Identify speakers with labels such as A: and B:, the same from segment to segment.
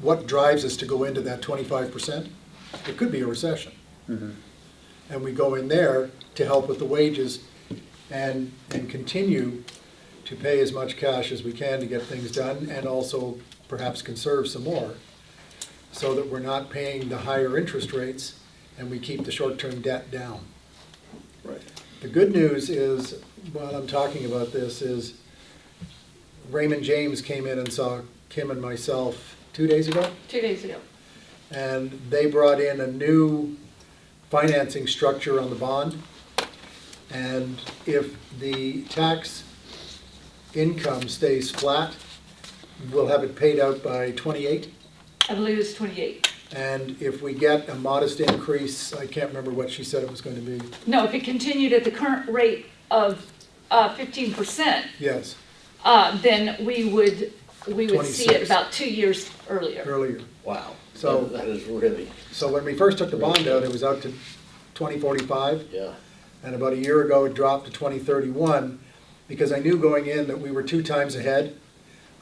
A: what drives us to go into that twenty-five percent? It could be a recession. And we go in there to help with the wages and, and continue to pay as much cash as we can to get things done and also perhaps conserve some more so that we're not paying the higher interest rates and we keep the short-term debt down.
B: Right.
A: The good news is, while I'm talking about this, is Raymond James came in and saw Kim and myself two days ago,
C: Two days ago.
A: and they brought in a new financing structure on the bond. And if the tax income stays flat, we'll have it paid out by twenty-eight.
C: I believe it's 28.
A: And if we get a modest increase, I can't remember what she said it was going to be,
C: No, if it continued at the current rate of uh, 15%,
A: yes,
C: uh, then we would, we would see it
A: 26.
C: about two years earlier.
A: earlier.
B: Wow.
A: So-
B: That- That is really,
A: So when we first took the bond out, it was out to 2045,
B: yeah,
A: and about a year ago, it dropped to 2031, because I knew going in that we were two times ahead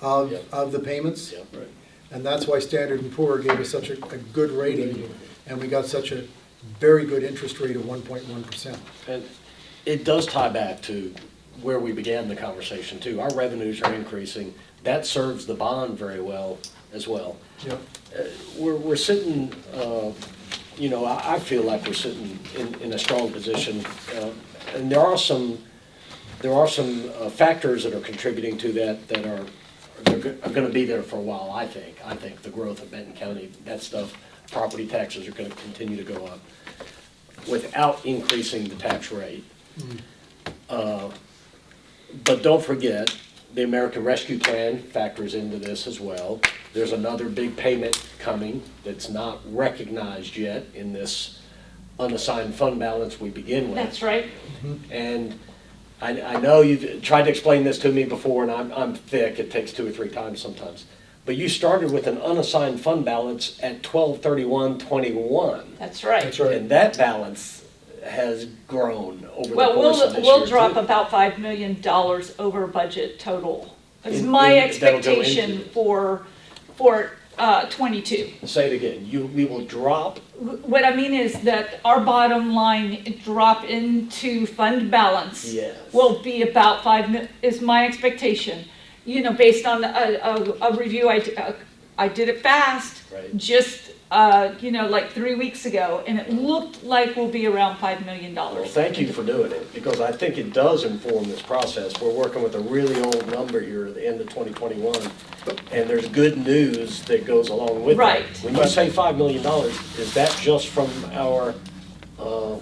A: of,
B: Yep.
A: of the payments.
B: yeah. Right.
A: And that's why Standard and Poor gave us such a, a good rating, and we got such a very good interest rate of 1.1%.
B: And it does tie back to where we began the conversation too. Our revenues are increasing. That serves the bond very well as well.
A: Yep.
B: We're, we're sitting, uh, you know, I, I feel like we're sitting in, in a strong position. uh, And there are some, there are some uh, factors that are contributing to that, that are, are go- are gonna be there for a while, I think. I think the growth of Benton County, that stuff, property taxes are gonna continue to go up without increasing the tax rate. Uh, But don't forget, the American Rescue Plan factors into this as well. There's another big payment coming that's not recognized yet in this unassigned fund balance we begin with.
C: That's right.
B: And I, I know you've tried to explain this to me before, and I'm, I'm thick, it takes two or three times sometimes. But you started with an unassigned fund balance at twelve thirty-one twenty-one.
C: That's right.
A: That's right.
B: And that balance has grown over the
C: Well,
B: course of
C: we'll,
B: this
C: we'll
B: year,
C: drop
B: too.
C: about $5 million over budget total. It's
B: In-
C: my
B: in- that'll go
C: expectation
B: into-
C: for, for uh, 22.
B: Say it again, you, we will drop,
C: What I mean is that our bottom line drop into fund balance
B: Yes.
C: will be about five mil, is my expectation. You know, based on a, a, a review, I, d- uh, I did it fast.
B: Right.
C: Just, uh, you know, like three weeks ago, and it looked like we'll be around five million
B: well,
C: dollars.
B: thank you for doing it, because I think it does inform this process. We're working with a really old number here at the end of twenty twenty-one, and there's good news that goes along with it.
C: Right.
B: When you say five million dollars, is that just from our, uh,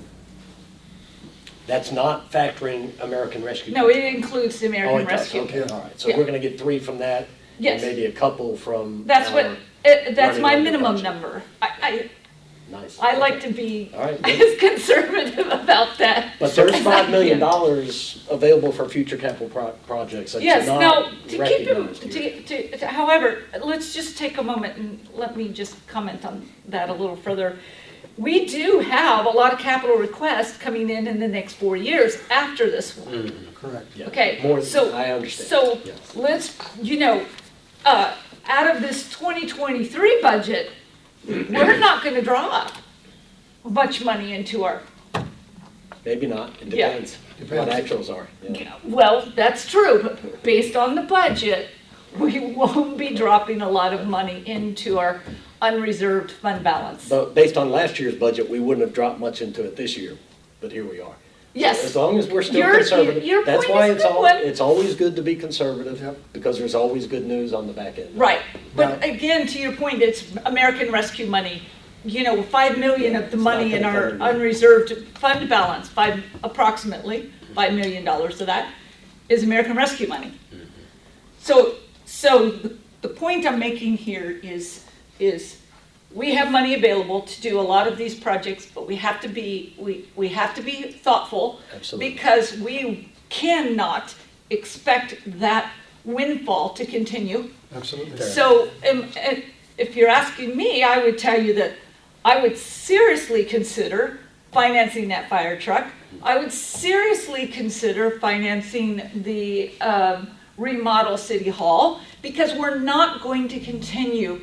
B: that's not factoring American Rescue?
C: No, it includes the
B: Oh,
C: American
B: it does,
C: Rescue.
B: okay,
A: Plan.
B: all right, so we're gonna get three from that? and
C: Yes.
B: Maybe a couple from
C: That's what,
B: our-
C: it, that's
B: running
C: my
B: under
C: minimum
B: budget.
C: number. I,
B: Nice.
C: I, I like to be
B: All right, good.
C: as conservative about that.
B: But there's
C: as I
B: five million
C: can.
B: dollars available for future capital pro- projects that's
C: Yes, now, to
B: not
C: keep him,
B: recognized here.
C: to, to, to- however, let's just take a moment and let me just comment on that a little further. We do have a lot of capital requests coming in in the next four years after this one.
A: Correct.
B: Yeah,
C: Okay,
B: Mm. more-
C: so,
B: I understand.
C: so
B: Yes.
C: let's, you know, uh, out of this twenty twenty-three budget, we're not gonna draw much money into our,
B: Maybe not, it
C: Yeah.
B: depends what
A: Depends.
B: actuals are. yeah.
C: Well, that's true, but based on the budget, we won't be dropping a lot of money into our unreserved fund balance.
B: But based on last year's budget, we wouldn't have dropped much into it this year, but here we are. As
C: Yes,
B: long as we're still
C: Your- your
B: conservative, that's
C: point
B: why
C: is
B: it's
C: good
B: al-
C: one.
B: it's always good to be
A: Yep.
B: conservative, because there's always good news on the back end.
C: right, but
A: Now-
C: again, to your point, it's American Rescue money. You know, five million of the
B: It's not
C: money in
B: gonna
C: our
B: cover it.
C: unreserved fund balance, five, approximately, five million dollars of that is American Rescue money.
B: Mm-hmm.
C: So, so the- the point I'm making here is, is we have money available to do a lot of these projects, but we have to be, we, we have to be thoughtful.
B: Absolutely.
C: Because we cannot expect that windfall to continue.
A: Absolutely.
C: So, um, and if you're asking me, I would tell you that I would seriously consider financing that fire truck. I would seriously consider financing the um, remodel City Hall because we're not going to continue